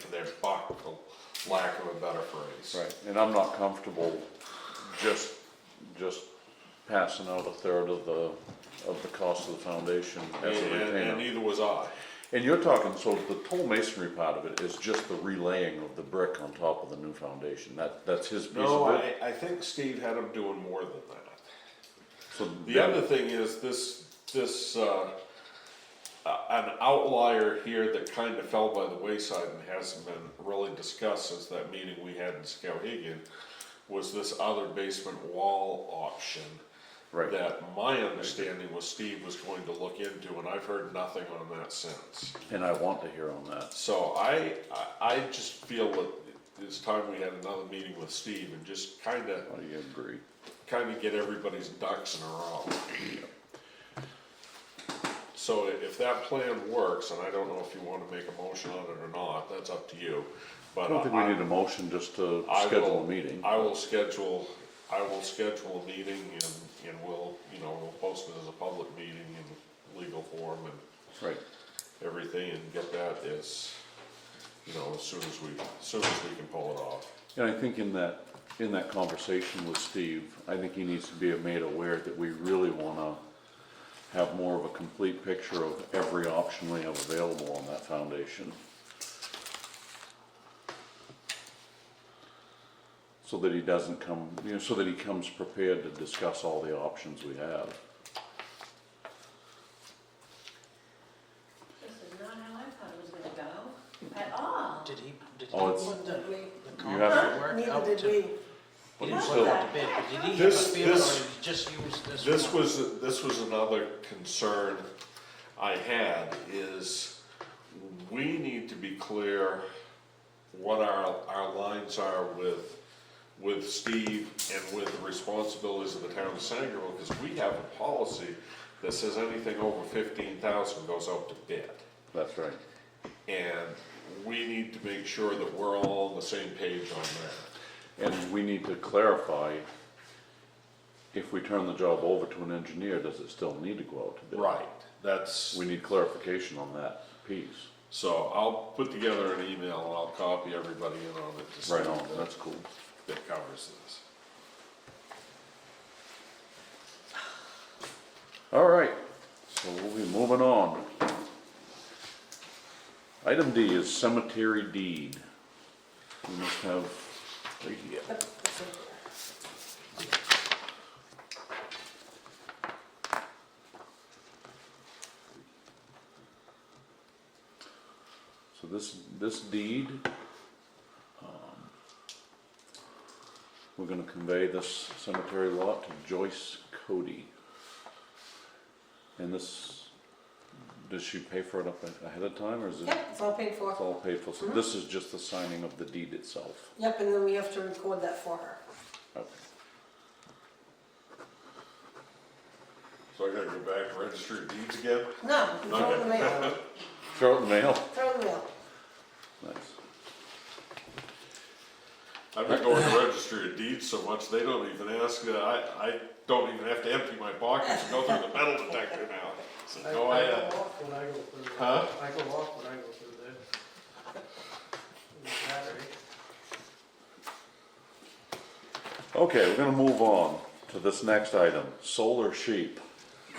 for their buck, for lack of a better phrase. Right, and I'm not comfortable just, just passing out a third of the, of the cost of the foundation as a And- And, and retainer. neither was I. And you're talking, so the whole masonry part of it is just the relaying of the brick on top of the new foundation, that, that's his piece No, of it? I, I think Steve had him doing more than that. So The that- other thing is this, this, uh, uh, an outlier here that kind of fell by the wayside and hasn't been really discussed since that meeting we had in Skowhegan was this other basement wall option. Right. That my understanding was Steve was going to look into, and I've heard nothing on that since. And I want to hear on that, So I, I, I just feel that it's time we had another meeting with Steve and just kinda, I agree. kinda get everybody's ducks in a row. So i- if that plan works, and I don't know if you wanna make a motion on it or not, that's up to you, I but don't think we I, need a motion just to I will- schedule a meeting. I will schedule, I will schedule a meeting and, and we'll, you know, we'll post it as a public meeting in legal form and Right, everything and get that as, you know, as soon as we, as soon as we can pull it off. and I think in that, in that conversation with Steve, I think he needs to be made aware that we really wanna have more of a complete picture of every option we have available on that foundation. So that he doesn't come, you know, so that he comes prepared to discuss all the options we have. This is not how I thought it was gonna go at all. Did he, did he Oh, it's- put the, the You have contract to- work out Neither to? did we. He you didn't still- put out to bid, but did he have This- a bid or did this- he just use this? This one? was, this was another concern I had is we need to be clear what our, our lines are with, with Steve and with the responsibilities of the town of Sangerville, because we have a policy that says anything over fifteen thousand goes out to bid. That's right. And we need to make sure that we're all on the same page on that. And we need to clarify, if we turn the job over to an engineer, does it still need to go out to bid? Right, that's, We need clarification on that piece. so I'll put together an email and I'll copy everybody in on it to see Right on, that, that's cool. that covers this. All right, so we'll be moving on. Item D is cemetery deed. We must have, so this, this deed, um, we're gonna convey this cemetery lot to Joyce Cody. And this, does she pay for it up ahead of time, or is it? Yep, it's all paid It's for. all paid for, so this is just the signing of the deed itself. Yep, and then we have to record that for her. Okay. So I gotta go back to registry of deeds again? No, you throw it in the mail. Throw it in the mail. Throw it in the mail. Nice. I've been going to registry of deeds so much, they don't even ask, that. I, I don't even have to empty my pockets and go through the metal detector now. So I go I ahead. go walk when I go through there. Huh? I go walk when I go through there. Is that right? Okay, we're gonna move on to this next item, solar sheep.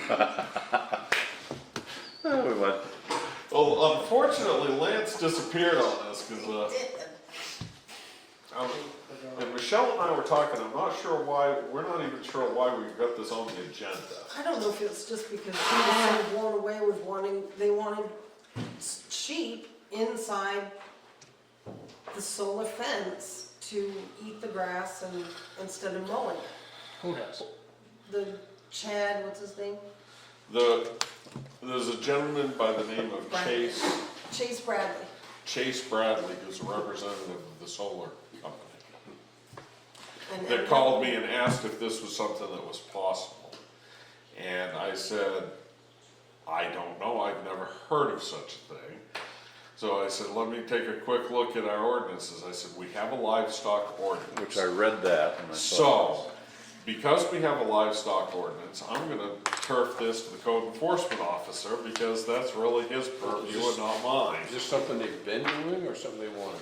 Oh, we went- Well, unfortunately Lance disappeared on this, cause, uh, I- And Michelle and I were talking, I'm not sure why, we're not even sure why we got this on the agenda. I don't know if it's just because she was so blown away with wanting, they wanted s- sheep inside the solar fence to eat the grass and, instead of mowing it. Who knows? The Chad, what's his name? The, there's a gentleman by the name of Chase, Chase Bradley. Chase Bradley, who's a representative of the solar company. And- That called me and asked if this was something that was possible. And I said, I don't know, I've never heard of such a thing. So I said, let me take a quick look at our ordinances. I said, we have a livestock ordinance. Which I read that and I thought. So, because we have a livestock ordinance, I'm gonna turf this to the code enforcement officer, because that's really his purview and not mine. Is this something they've been doing or something they wanted?